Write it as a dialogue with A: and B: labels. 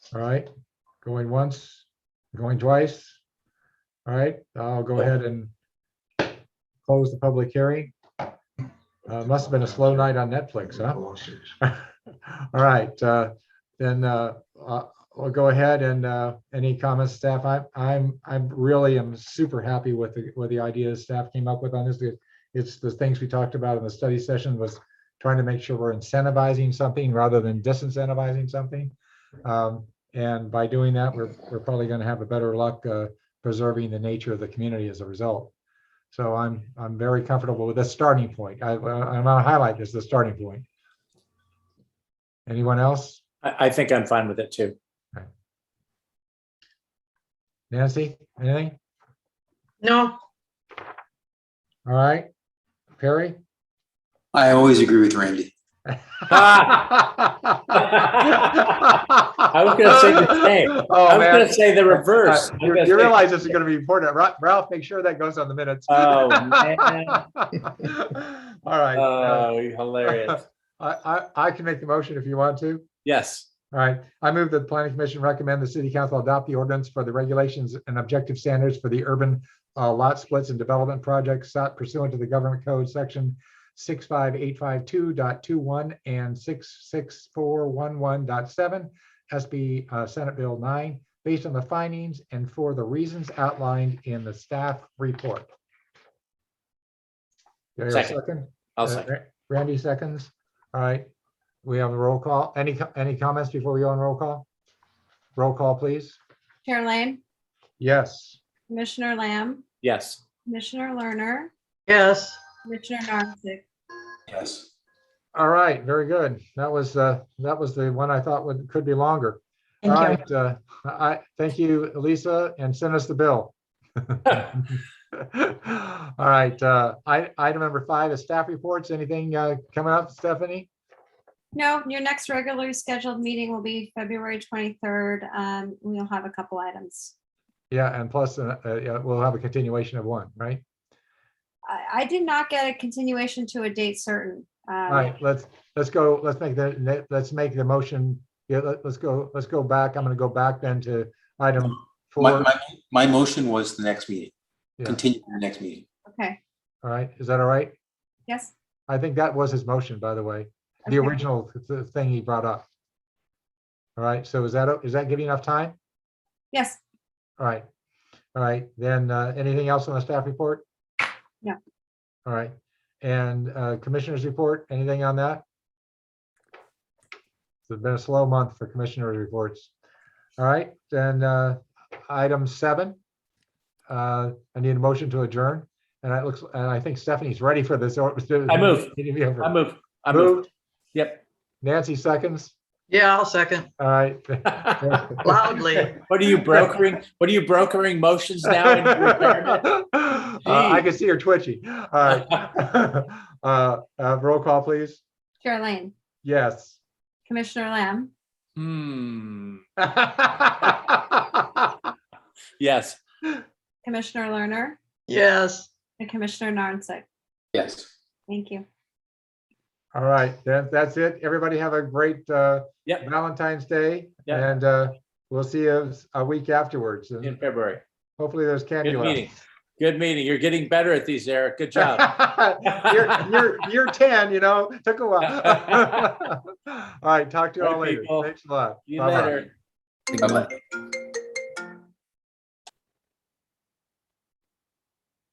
A: All right, going once, going twice. All right, I'll go ahead and close the public hearing. Uh, must have been a slow night on Netflix, huh? All right, uh, then, uh, uh, we'll go ahead and, uh, any comments, staff? I, I'm, I'm really am super happy with the, with the ideas staff came up with on this. It- It's the things we talked about in the study session was trying to make sure we're incentivizing something rather than disincentivizing something. Um, and by doing that, we're, we're probably gonna have a better luck, uh, preserving the nature of the community as a result. So I'm, I'm very comfortable with the starting point. I, I'm gonna highlight this, the starting point. Anyone else?
B: I, I think I'm fine with it too.
A: Nancy, anything?
C: No,
A: All right, Perry?
D: I always agree with Randy.
B: was gonna say the same.
A: Oh,
B: I was
A: man.
B: gonna say the reverse.
A: Uh,
B: I was
A: You
B: gonna
A: you
B: say-
A: realize this is gonna be important. Ra- Ralph, make sure that goes on the minutes.
B: Oh, man.
A: All right. uh,
B: Oh, you're hilarious.
A: I, I, I can make the motion if you want to.
B: Yes,
A: All right. I move that the planning commission recommend the city council adopt the ordinance for the regulations and objective standards for the urban uh, lot splits and development projects sought pursuant to the government code section six five eight five two dot two one and six six four one one dot seven SB uh, Senate Bill nine, based on the findings and for the reasons outlined in the staff report. Do I hear a
B: Second.
A: second?
B: I'll
A: Uh,
B: second.
A: Ra- Randy seconds. All right. We have a roll call. Any, co- any comments before we go on roll call? Roll call, please.
E: Chair Lane,
A: Yes.
E: Commissioner Lamb,
B: Yes,
E: Commissioner Lerner,
C: yes,
E: Commissioner Narcisse,
D: Yes.
A: All right. Very good. That was, uh, that was the one I thought would, could be longer. All
C: thank you.
A: right. uh, I, thank you, Lisa, and send us the bill. All right. uh, I, item number five is staff reports. Anything uh, coming up, Stephanie?
E: No, your next regularly scheduled meeting will be February 23rd. Um, We'll have a couple items.
A: Yeah, and plus, uh, uh, yeah, we'll have a continuation of one, right?
E: I, I did not get a continuation to a date certain. Um,
A: All right, let's, let's go, let's make the, let's make the motion. Yeah, let, us go, let's go back. I'm gonna go back then to item
D: My,
A: four.
D: my, my motion was the next meeting,
A: Yeah.
D: continue to the next meeting.
E: Okay,
A: All right, is that all right?
E: yes,
A: I think that was his motion, by the way, the
E: Okay.
A: original th- th- thing he brought up. All right, so is that, o- is that giving enough time?
E: yes.
A: All right, all right, then, uh, anything else on the staff report?
E: No.
A: All right, and, uh, commissioners report, anything on that? It's been a slow month for commissioners reports. All right, then, uh, item seven. Uh, I need a motion to adjourn, and it looks, and I think Stephanie's ready for this. or-
B: I move.
A: Need to be over.
B: I move, I move.
A: Moved.
B: Yep.
A: Nancy seconds,
C: Yeah, I'll second
A: all right.
C: loudly.
B: What are you brokering? What are you brokering motions now? into retirement?
A: Uh, I can see her twitchy. All right. Uh, uh, Roll call, please.
E: Chair Lane,
A: Yes.
E: Commissioner Lamb,
B: Hmm,
A: All
B: yes,
E: Commissioner Lerner,
C: Yes.
E: and Commissioner Narcisse.
D: Yes.
E: Thank you.
A: right, that, that's it. Everybody have a great uh,
B: Yep.
A: Valentine's Day.
B: Yep.
A: And uh, we'll see you a week afterwards.
B: in
A: And
B: February.
A: hopefully there's candy
B: Good
A: left.
B: meeting. Good meeting. You're getting better at these, Eric. Good job.
A: You're, you're, you're 10, you know, took a while. All right, talk to you all
B: Right,
A: later.
B: people.
A: Thanks a lot.
B: You
A: Bye-bye.
B: better.
D: Bye-bye.